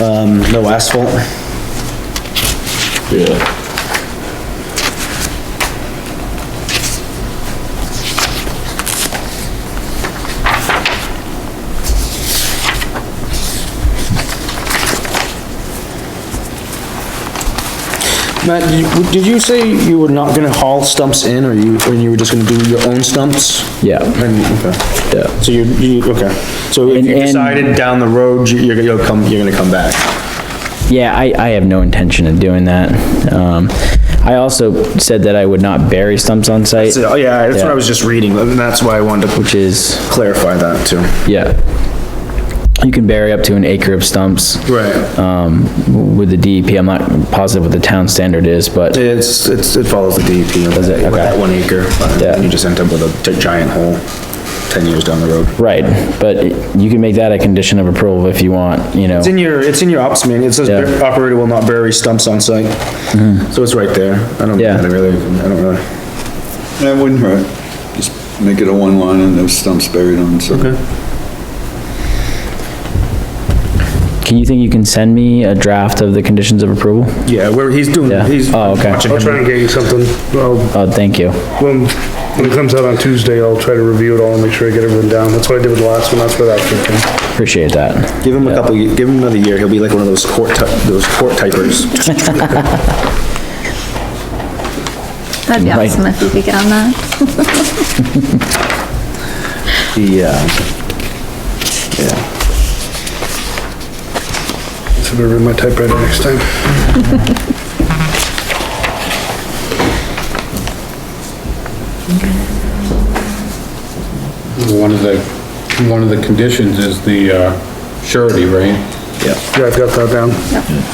Um, no asphalt? Yeah. Matt, did you- did you say you were not gonna haul stumps in, or you, or you were just gonna do your own stumps? Yeah. And, okay. Yeah. So you, you, okay, so if And- you and- decided down the road, you- you're, you'll come, you're gonna come back? Yeah, I, I have no intention of doing that. Um, I also said that I would not bury stumps on site, So, oh, yeah, that's what I Yeah. was just reading, and that's why I wanted to which is, clarify that too. yeah. You can bury up to an acre of stumps. Right. Um, with the DEP, I'm not positive what the town standard is, but It's, it's, it follows the E DEP. Does it? Okay. That one acre, but Yeah. you just end up with a giant hole ten years down the road. Right, but you can make that a condition of approval if you want, you know, It's in your, it's in your ops manual, it says Yeah. Mm-hmm. operator will not bury stumps on site. So it's right there, I don't, Yeah. I don't really, I don't really, That wouldn't hurt. Just make it a one line and those stumps buried on, so. can you think you can send me a draft of the conditions of approval? yeah, where, he's doing, Yeah. he's. Oh, okay. watching I'll him. try and get you something. Well, Oh, thank you. when, when it comes out on Tuesday, I'll try to review it all and make sure I get everything down. That's what I did with the last one, that's where that came from. Appreciate that. Give him a couple, ye- give him another year, he'll be like one of those court, ty- those court typers. That'd be Right. awesome if you could get on that. Yeah. Yeah. So I'll read my typewriter next time. One of the, one of the conditions is the uh, surety, right? Yeah, I've got that down.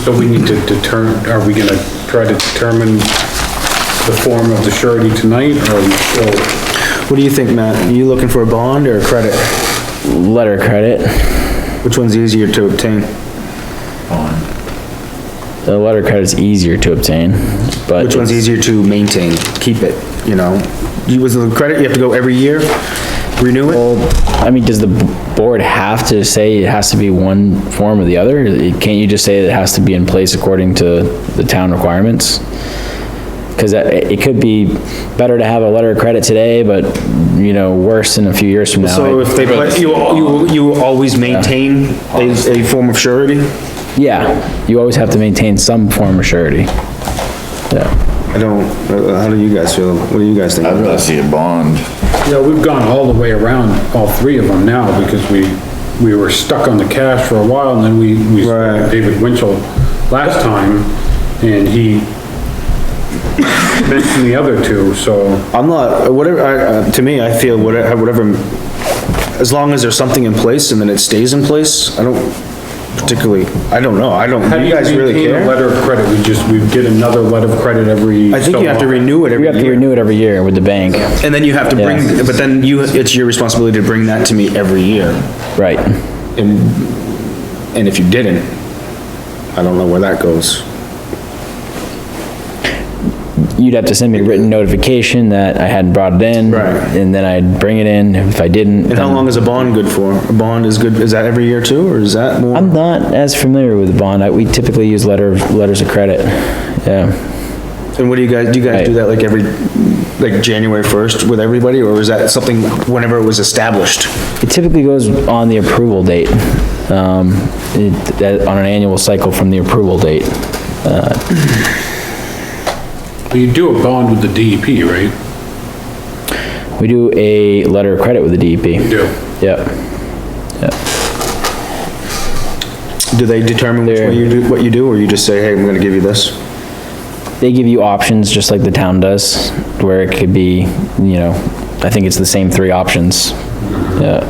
So we need to determine, are we gonna try to determine the form of the surety tonight, or are we still? What do you think, Matt? You looking for a bond or a credit? Letter of credit, Which one's easier to obtain? the letter of credit's easier to obtain, but. Which one's easier to maintain, keep it, you know? You, with the credit, you have to go every year, renew it? I mean, does the board have to say it has to be one form or the other? Can't you just say it has to be in place according to the town requirements? Because it could be better to have a letter of credit today, but, you know, worse in a few years from now. So if they, pla- you, you, you always maintain a, a form of surety? Yeah, you always have to maintain some form of surety. Yeah, I don't, uh, how do you guys feel? What do you guys think? I'd rather see a bond. Yeah, we've gone all the way around all three of them now, because we, we were stuck on the cash for a while, and then we, we spoke Right. to David Winchell last time, and he mentioned the other two, so. I'm not, whatever, I, uh, to me, I feel whatever, whatever, as long as there's something in place and then it stays in place, I don't particularly, I don't know, I don't, How do you guys really maintain a care? Letter of credit, we just, we get another letter of credit every. I think so you have to often. renew it every year. you have to renew it every year with the bank, And then you have to bring, Yeah. but then you, it's your responsibility to bring that to me every year. right? And, and if you didn't, I don't know where that goes. You'd have to send me a written notification that I hadn't brought it in. Right. And then I'd bring it in, if I didn't. And how then- long is a bond good for? A bond is good, is that every year too, or is that more? I'm not as familiar with the bond. I- We typically use letter, of- letters of credit. Yeah. And what do you guys, do you guys do that like every, like January 1st with everybody, or is that something whenever it was established? It typically goes on the approval date, um, it, that- on an annual cycle from the approval date. Well, You do a bond with the DEP, right? We do a letter of credit with the DEP. do. Yep. Do they determine which way you do, what you do, or you just say, hey, I'm gonna give you this? They give you options, just like the town does, where it could be, you know, I think it's the same three options. Yeah,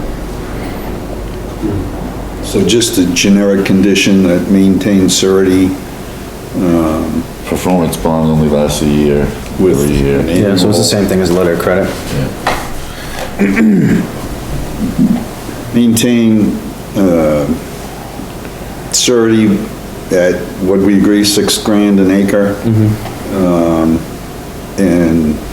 So just a generic condition that maintains surety Performance bond only lasts a year, with. every year. an annual- thing as a letter of credit. Maintain, uh, surety at, what we agree, six grand an acre. Um, and